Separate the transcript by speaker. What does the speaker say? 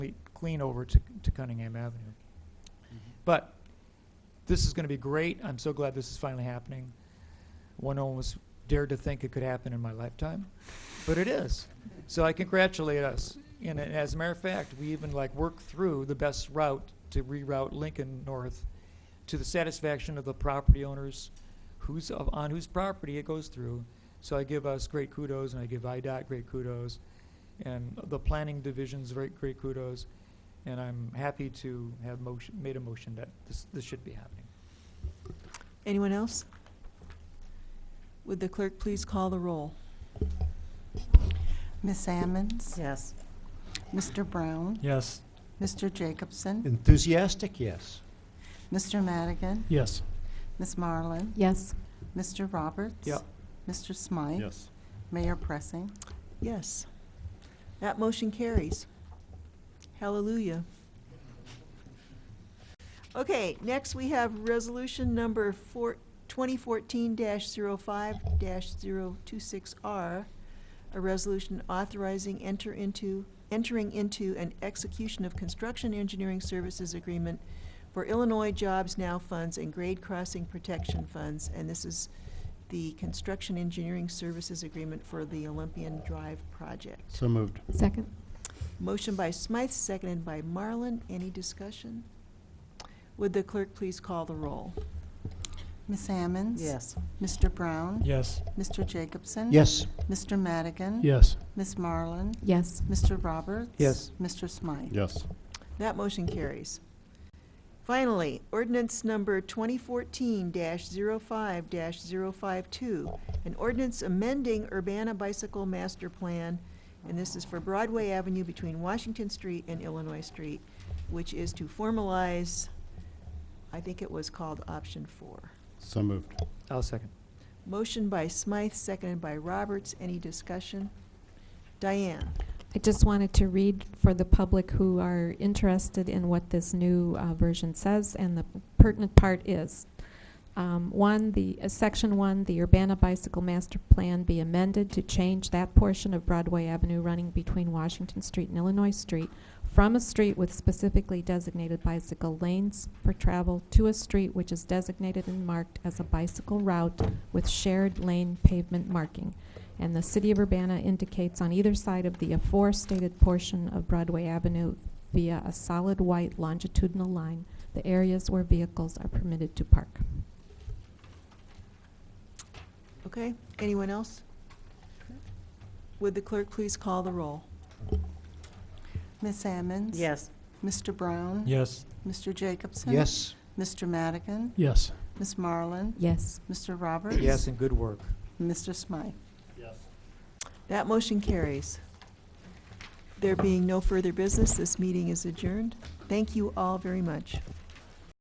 Speaker 1: clean over to, to Cunningham Avenue. But this is going to be great. I'm so glad this is finally happening. One almost dared to think it could happen in my lifetime, but it is. So I congratulate us. And a- as a matter of fact, we even like worked through the best route to reroute Lincoln North to the satisfaction of the property owners who's of- on whose property it goes through. So I give us great kudos and I give IDOT great kudos and the planning division's very great kudos. And I'm happy to have motion, made a motion that this, this should be happening.
Speaker 2: Anyone else? Would the clerk please call the roll?
Speaker 3: Miss Ammons?
Speaker 4: Yes.
Speaker 3: Mr. Brown?
Speaker 5: Yes.
Speaker 3: Mr. Jacobson?
Speaker 6: Enthusiastic, yes.
Speaker 3: Mr. Madigan?
Speaker 5: Yes.
Speaker 3: Miss Marlin?
Speaker 4: Yes.
Speaker 3: Mr. Roberts?
Speaker 1: Yep.
Speaker 3: Mr. Smythe?
Speaker 7: Yes.
Speaker 3: Mayor Pressing?
Speaker 2: Yes. That motion carries. Hallelujah. Okay, next we have resolution number four, 2014-05-026R, a resolution authorizing enter into, entering into an execution of construction engineering services agreement for Illinois Jobs Now funds and grade crossing protection funds, and this is the construction engineering services agreement for the Olympian Drive project.
Speaker 6: So moved.
Speaker 4: Second.
Speaker 2: Motion by Smythe, seconded by Marlin. Any discussion? Would the clerk please call the roll?
Speaker 3: Miss Ammons? Mr. Brown?
Speaker 5: Yes.
Speaker 3: Mr. Jacobson?
Speaker 6: Yes.
Speaker 3: Mr. Madigan?
Speaker 5: Yes.
Speaker 3: Miss Marlin?
Speaker 4: Yes.
Speaker 3: Mr. Roberts?
Speaker 1: Yes.
Speaker 3: Mr. Smythe?
Speaker 7: Yes.
Speaker 2: That motion carries. Finally, ordinance number 2014-05-052, an ordinance amending Urbana Bicycle Master Plan, and this is for Broadway Avenue between Washington Street and Illinois Street, which is to formalize, I think it was called option four.
Speaker 7: So moved.
Speaker 1: I'll second.
Speaker 2: Motion by Smythe, seconded by Roberts. Any discussion? Diane?
Speaker 4: I just wanted to read for the public who are interested in what this new uh, version says, and the pertinent part is, um, one, the, uh, Section 1, the Urbana Bicycle Master Plan be amended to change that portion of Broadway Avenue running between Washington Street and Illinois Street from a street with specifically designated bicycle lanes for travel to a street which is designated and marked as a bicycle route with shared lane pavement marking. And the City of Urbana indicates on either side of the aforestated portion of Broadway Avenue via a solid white longitudinal line, the areas where vehicles are permitted to park.
Speaker 2: Okay, anyone else? Would the clerk please call the roll?
Speaker 3: Miss Ammons?
Speaker 4: Yes.
Speaker 3: Mr. Brown?
Speaker 5: Yes.
Speaker 3: Mr. Jacobson?
Speaker 6: Yes.
Speaker 3: Mr. Madigan?
Speaker 5: Yes.
Speaker 3: Miss Marlin?
Speaker 4: Yes.
Speaker 3: Mr. Roberts?
Speaker 1: Yes, and good work.
Speaker 3: Mr. Smythe?
Speaker 2: That motion carries. There being no further business, this meeting is adjourned. Thank you all very much.